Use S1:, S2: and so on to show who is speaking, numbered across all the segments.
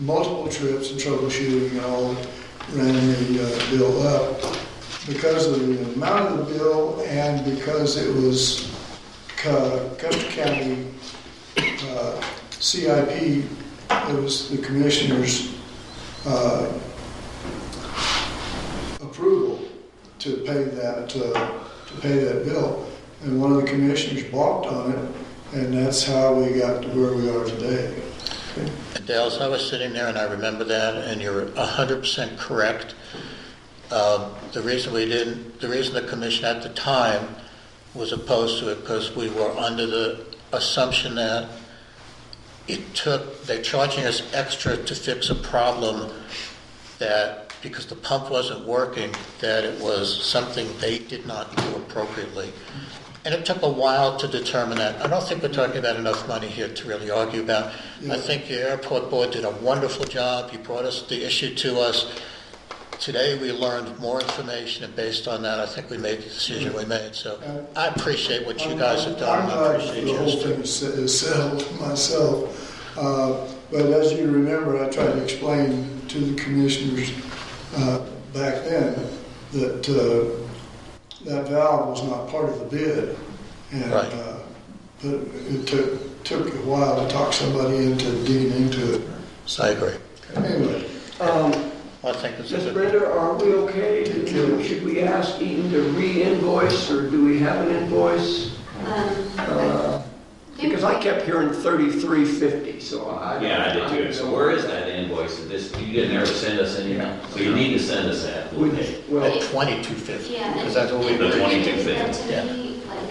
S1: multiple trips and troubleshooting and all, ran the uh, bill up because of the amount of the bill and because it was Co- Custer County uh, CIP, it was the commissioner's uh, approval to pay that, uh, to pay that bill. And one of the commissioners balked on it, and that's how we got to where we are today.
S2: Adele, as I was sitting there and I remember that, and you're 100% correct. Um, The reason we didn't, the reason the commission at the time was opposed to it because we were under the assumption that it took, they're charging us extra to fix a problem that, because the pump wasn't working, that it was something they did not do appropriately. And it took a while to determine that. I don't think we're talking about enough money here to really argue about. I think your airport board did a wonderful job. You brought us the issue to us. Today, we learned more information, and based on that, I think we made the decision we made. So I appreciate what you guys have done.
S1: Uh, I'm
S2: I
S1: glad
S2: appreciate
S1: The
S2: yours
S1: whole
S2: too.
S1: thing is is settled myself. Uh, But as you remember, I tried to explain to the commissioners uh, back then that uh, that valve was not part of the bid. And,
S2: Right.
S1: uh, but it took, took a while to talk somebody into digging into it.
S2: So I agree.
S1: Anyway,
S3: Um,
S2: I think this is
S3: Ms.
S2: a,
S3: Brenda, are we okay? to- Should we ask Eaton to re-invoice, or do we have an invoice? Uh, Because I kept hearing 3350, so I.
S4: Yeah, I did too. So where is that invoice? Is This, you didn't ever send us any, so you need to send us that.
S3: We- Well,
S2: at 2250,
S5: Um, Yeah.
S2: because that's what we
S4: The
S2: agreed.
S5: If you
S4: 22
S5: get that to
S2: yeah.
S5: me, like,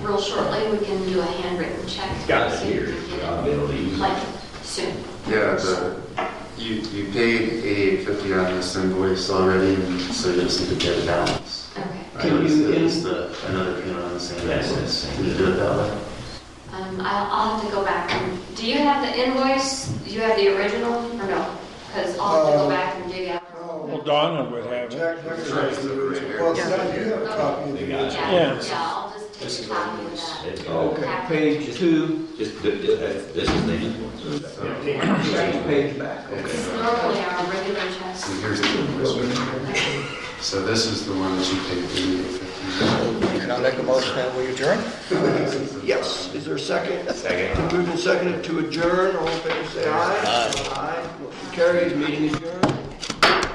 S5: real shortly, we can do a handwritten check.
S4: Got it
S5: So you
S4: here.
S5: can get it,
S4: I'll be able to use it.
S5: Like, soon.
S6: Yeah, the, you, you paid eighty-eight fifty on this invoice already, and so you just need to get a balance.
S5: Okay.
S6: I
S3: Can
S6: noticed
S3: you
S6: that
S3: in-
S6: it's the, another payment on the same
S4: Yes,
S6: invoice.
S4: yes.
S6: Can you do it that way?
S5: Um, I'll, I'll have to go back and, do you have the invoice? Do you have the original or no? Because I'll have to
S1: Uh,
S5: go back and dig out.
S1: no.
S7: Well, Donna would have it.
S1: Jack Becker has the original. Well, Zach, you have a copy of
S4: They
S1: the
S4: got it.
S5: Yeah,
S7: Yeah.
S5: yeah, I'll just take a copy of that.
S4: It's all-
S3: okay, page two,
S4: Just, th- th- that- this is the invoice.
S3: second page back, okay.
S5: It's normally our regular checks.
S6: So here's the invoice. So this is the one that you paid eighty-eight fifty.
S2: And I'll make a motion that we adjourn.
S3: Yes, is there a second?
S4: Second.
S3: Moved and seconded to adjourn, all in favor, say aye. Aye. Motion carries, meeting adjourned.